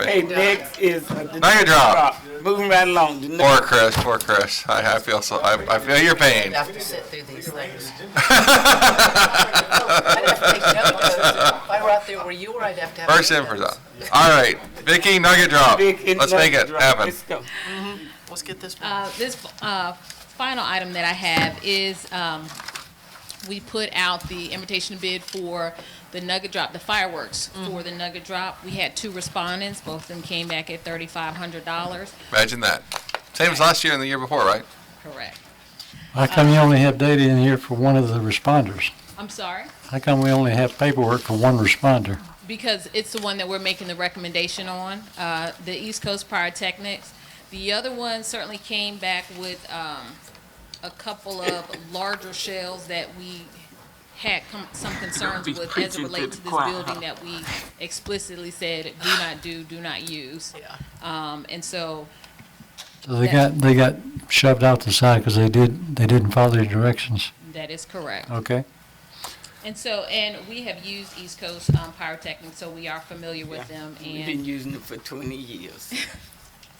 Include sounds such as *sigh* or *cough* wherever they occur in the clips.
Okay, Alright. next is. uh, the Now you're dropped. Moving right along. The Poor next- Chris, poor Chris. I, I feel so, I, I feel your pain. *laughs* I have to sit through these things. I'd have to take notes. If I were out there where you were, I'd have to have. First in, notes. first out. All right, Vicky Nugget Drop. big in- Let's make it drop. happen. Let's go. Let's get this one. Uh, this uh, final item that I have is um, we put out the invitation to bid for the Nugget Drop, the fireworks for the Nugget Drop. We had two respondents, both of them came back at thirty-five hundred dollars. Imagine that. Same as last year and the year before, right? Correct. How come you only have data in here for one of the responders? I'm sorry, How come we only have paperwork for one responder? because it's the one that we're making the recommendation on, uh, the East Coast Pyrotechnics. The other one certainly came back with um, a couple of larger shells that we had com- some concerns Be with as it preaching to relates to the this choir. building that we explicitly said, do not do, do not use. Yeah. Um, And so, So they got, they got shoved out the side because they did, they didn't follow the directions, that is correct. okay? And so, and we have used East Coast um, Pyrotechnics, so we are familiar with them. We've been And using it for twenty years.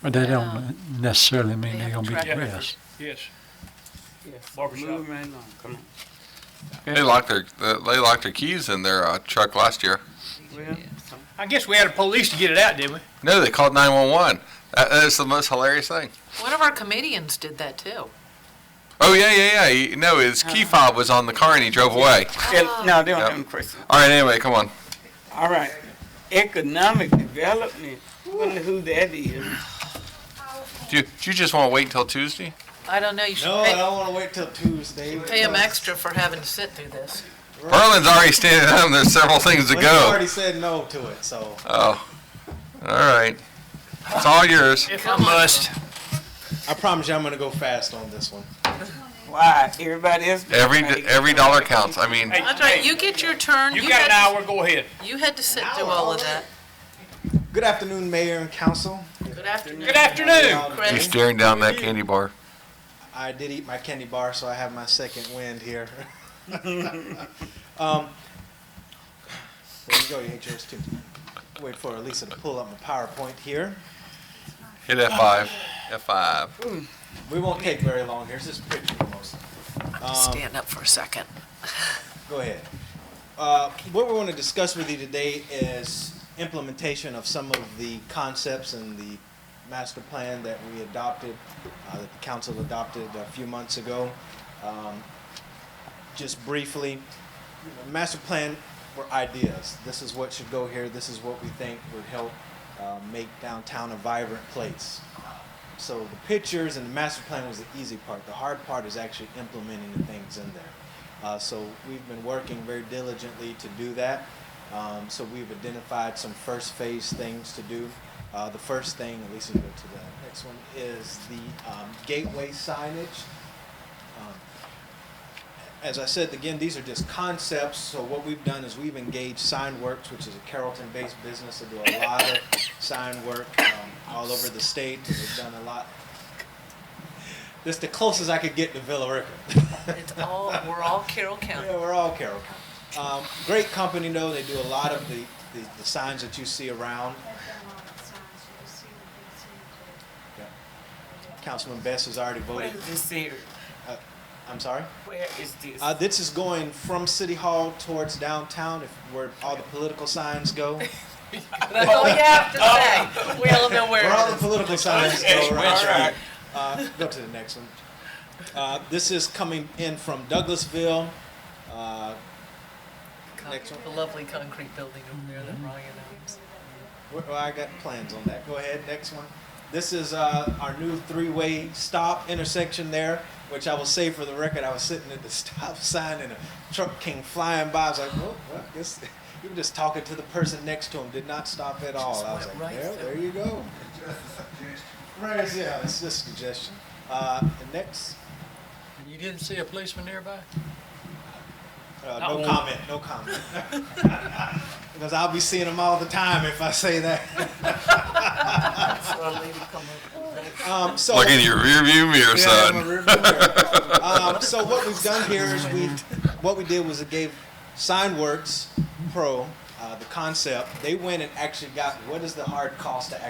But that don't necessarily mean They they're have gonna be track the record. best. Yes. Barbershop. Moving right along, come on. They locked their, they locked their keys in their uh, truck last year. Well, I guess we had a police to get it out, didn't we? No, they called 911. That that is the most hilarious thing. One of our comedians did that too. Oh, yeah, yeah, yeah. He, no, his key fob was on the car and he drove away. yeah, No, they Yep. don't have any questions. All right, anyway, come on. All right, economic development, I wonder who that is. Do you, do you just want to wait until Tuesday? I don't know, you should No, I pay, don't wanna wait till Tuesday. pay him extra for having to sit through this. Berlin's already standing *laughs* up and there's several things to But he go. already said no to it, so. Oh, all right. It's all yours. If I must. I promise you, I'm gonna go fast on this one. Why, everybody else? Every, d- every dollar counts. I mean, That's right, you get your turn. You had got an hour, go ahead. You had to sit through all of that. Good afternoon, Mayor and Council. Good afternoon, Good afternoon. Um, you're Chris. staring down that candy bar. I did eat my candy bar, so I have my second wind here. um, there you go, you ate yours too. Wait for Elisa to pull up my PowerPoint here. Hit F5. F5. We won't take very long. Here's this picture mostly. Um, Stand up for a second. Go ahead. Uh, What we want to discuss with you today is implementation of some of the concepts and the master plan that we adopted, uh, that the council adopted a few months ago. Um, Just briefly, master plan were ideas. This is what should go here, this is what we think would help uh, make downtown a vibrant place. So the pictures and the master plan was the easy part. The hard part is actually implementing the things in there. Uh, so we've been working very diligently to do that. Um, so we've identified some first phase things to do. Uh, the first thing, at least you go to the next one, is the um, gateway signage. Um, as I said, again, these are just concepts, so what we've done is we've engaged Signworks, which is a Carrollton-based business that do a lot of sign work um, all over the state, and they've done a lot. That's the closest I could get to Villa *laughs* Rica. It's all, we're all Carroll County. Yeah, we're all Carroll County. Um, great company though, they do a lot of the, the, the signs that you see around. Councilman Best has already Where voted, is this here? I'm sorry? Where is this? Uh, this is going from City Hall towards downtown, if, where all the political signs go. *laughs* That's all you have to say. We Oh. all know where Where all the it is. political signs Yes, go West right? Uh, go to the next one. Uh, this is coming in from Douglasville. Uh, Next one. The lovely concrete building over there that Ryan owns. Well, I got plans on that. Go ahead, next one. This is uh, our new three-way stop intersection there, which I will say for the record, I was sitting at the *laughs* stop sign and a truck came flying by. I was like, "Whoa, what? This?" *laughs* You were just talking to the person next to him. Did not stop at all. I was went like, right "There, through. there you go." Right, yeah, it's just a suggestion. Uh, and next, You didn't see a policeman nearby? uh, Not no one. comment. *laughs* No comment. because I'll be seeing them all the time if I say that. So I'll leave it come over. Um, so *laughs* Look in your rearview mirror, Yeah, I'm son. a rear view mirror. um, so what we've done here is we, what we did was it gave SignWorks Pro uh, the concept, they went and actually got what is the hard cost to